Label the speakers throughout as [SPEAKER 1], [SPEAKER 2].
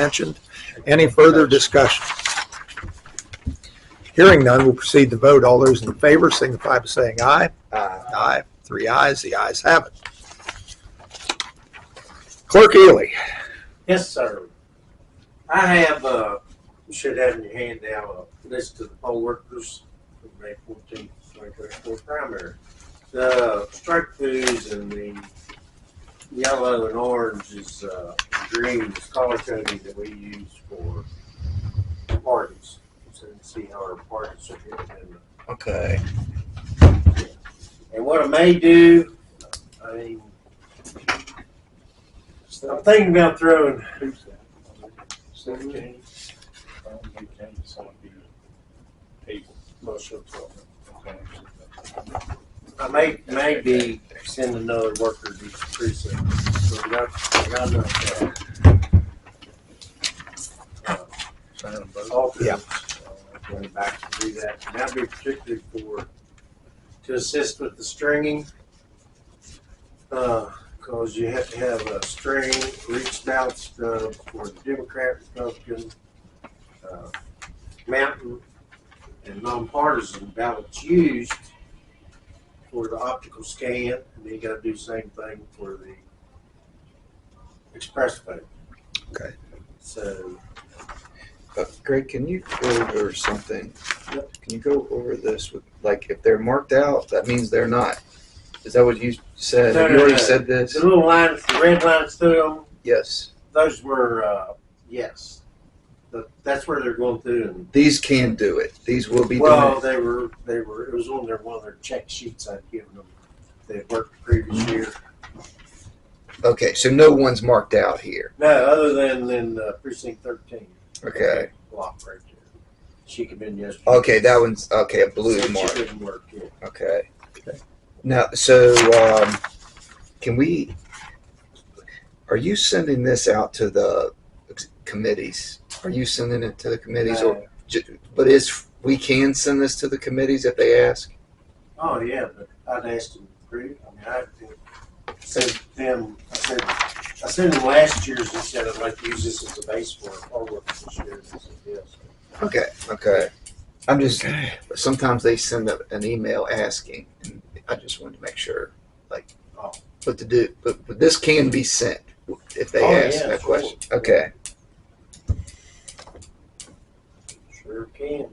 [SPEAKER 1] mentioned. Any further discussion? Hearing none, we'll proceed to vote. All those in favor signify by saying aye.
[SPEAKER 2] Uh,
[SPEAKER 1] Aye. Three ayes, the ayes have it. Clerk Ely,
[SPEAKER 2] Yes, sir. I have, uh, you should have in your hand now, a list of the poll workers from May fourteenth, twenty twenty-four primary. The strike throughs and the yellow and orange is, uh, green is color coding that we use for parties. So you can see how our parties are getting in the
[SPEAKER 3] Okay.
[SPEAKER 2] And what I may do, I mean, so I'm thinking about throwing. Seventeen. I may, maybe send another worker to each precinct. So we got, we got enough, uh, uh, alternate,
[SPEAKER 1] Yeah.
[SPEAKER 2] uh, Going back to do that, and that'd be particularly for, to assist with the stringing. Uh, cause you have to have a string, reach bouts, uh, for the Democrat, Republican, uh, mountain, and nonpartisan ballots used for the optical scan, and then you gotta do the same thing for the express vote.
[SPEAKER 1] Okay.
[SPEAKER 2] So,
[SPEAKER 3] Uh, Greg, can you go over something?
[SPEAKER 2] Yep.
[SPEAKER 3] Can you go over this with, like, if they're marked out, that means they're not. Is that what you said?
[SPEAKER 2] No,
[SPEAKER 3] Have
[SPEAKER 2] no,
[SPEAKER 3] you already
[SPEAKER 2] no.
[SPEAKER 3] said this?
[SPEAKER 2] The little lines, the red lines through them,
[SPEAKER 3] Yes.
[SPEAKER 2] those were, uh, yes. But that's where they're going through and,
[SPEAKER 3] These can do it. These will be
[SPEAKER 2] well,
[SPEAKER 3] doing
[SPEAKER 2] they were, they were, it was on their, one of their check sheets I'd given them. They had worked the
[SPEAKER 3] Mm-hmm.
[SPEAKER 2] previous year.
[SPEAKER 3] it. Okay, so no one's marked out here.
[SPEAKER 2] No, other than, than uh, precinct thirteen.
[SPEAKER 3] Okay.
[SPEAKER 2] Block right there. She could have been yesterday.
[SPEAKER 3] Okay, that one's okay. A blue
[SPEAKER 2] Said
[SPEAKER 3] mark.
[SPEAKER 2] She couldn't work, yeah.
[SPEAKER 3] Okay. Now, so um, can we? Are you sending this out to the ex- committees? Are you sending it to the committees, or
[SPEAKER 2] No.
[SPEAKER 3] ju- but is we can send this to the committees if they ask?
[SPEAKER 2] Oh, yeah, but I'd asked them, to approve. I mean, I said them, I said, I sent them last year's and said I'd like to use this as a base for our work this year. They said, yes.
[SPEAKER 3] Okay. Okay. I'm just. Sometimes they send a, an email asking, and I just wanted to make sure, like,
[SPEAKER 2] Oh.
[SPEAKER 3] what to do. But, but this can be sent if they
[SPEAKER 2] Oh,
[SPEAKER 3] ask
[SPEAKER 2] yeah,
[SPEAKER 3] that
[SPEAKER 2] sure.
[SPEAKER 3] question. Okay.
[SPEAKER 2] Sure can.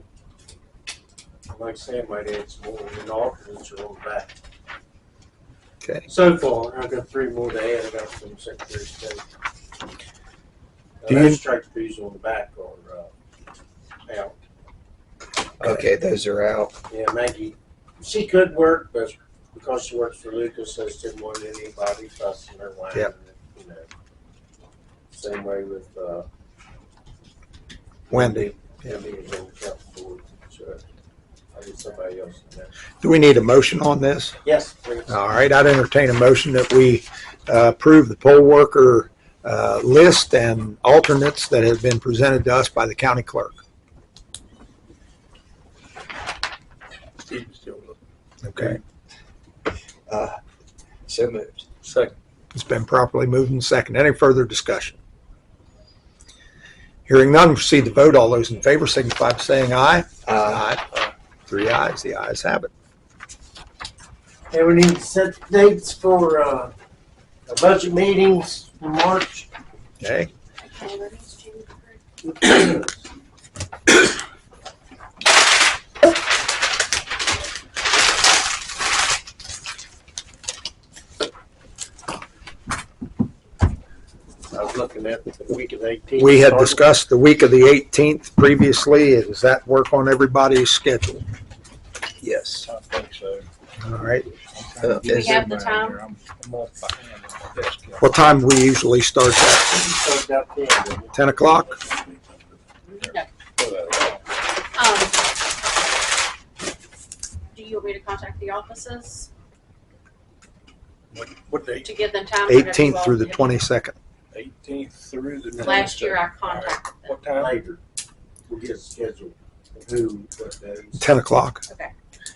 [SPEAKER 2] Like Sam might add some more in alternates or on back.
[SPEAKER 1] Okay.
[SPEAKER 2] So far, I've got three more to add, I got from Secretary of State. Now,
[SPEAKER 1] Do you-
[SPEAKER 2] Those strike fees on the back are, uh, out.
[SPEAKER 3] Okay. Those are out.
[SPEAKER 2] Yeah, Maggie, she could work, but because she works for Lucas, I just didn't want anybody fussing her line.
[SPEAKER 1] Yep.
[SPEAKER 2] You know, same way with, uh.
[SPEAKER 1] Wendy,
[SPEAKER 2] Wendy is on council board, so I need somebody else in there.
[SPEAKER 1] do we need a motion on this?
[SPEAKER 2] Yes, please.
[SPEAKER 1] All right, I'd entertain a motion that we uh, approve the poll worker uh, list and alternates that have been presented to us by the county clerk. Okay,
[SPEAKER 3] Uh, so moved.
[SPEAKER 4] Second.
[SPEAKER 1] it's been properly moved and second. Any further discussion? Hearing none, proceed to vote. All those in favor signify by saying aye.
[SPEAKER 3] Uh,
[SPEAKER 1] Aye. Three ayes, the ayes have it.
[SPEAKER 2] Hey, we need to set dates for, uh, the budget meetings in March.
[SPEAKER 1] Okay,
[SPEAKER 5] Um,
[SPEAKER 2] I was looking at the week of eighteen.
[SPEAKER 1] we had discussed the week of the 18th previously. Does that work on everybody's schedule?
[SPEAKER 3] yes.
[SPEAKER 4] I think so.
[SPEAKER 1] All right,
[SPEAKER 3] Uh,
[SPEAKER 5] Do we
[SPEAKER 3] is
[SPEAKER 5] have
[SPEAKER 3] it-
[SPEAKER 5] the time?
[SPEAKER 1] what time we usually start at?
[SPEAKER 2] Started out there, didn't it?
[SPEAKER 1] 10 o'clock?
[SPEAKER 5] Um, do you want me to contact the offices
[SPEAKER 4] What date?
[SPEAKER 5] to give them time? for everyone?
[SPEAKER 1] 18th through the 22nd.
[SPEAKER 4] Eighteenth through the.
[SPEAKER 5] Last year I contacted them.
[SPEAKER 4] What time?
[SPEAKER 2] later. We'll get a schedule of who, what days.
[SPEAKER 1] 10 o'clock.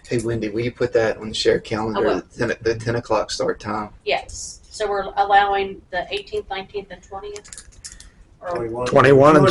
[SPEAKER 3] Hey, Wendy, will you put that on the share calendar?
[SPEAKER 5] I will.
[SPEAKER 3] The 10, the 10 o'clock start time.
[SPEAKER 5] Yes, so we're allowing the eighteenth, nineteenth, and twentieth?
[SPEAKER 6] or
[SPEAKER 7] Twenty-one.
[SPEAKER 2] 21 and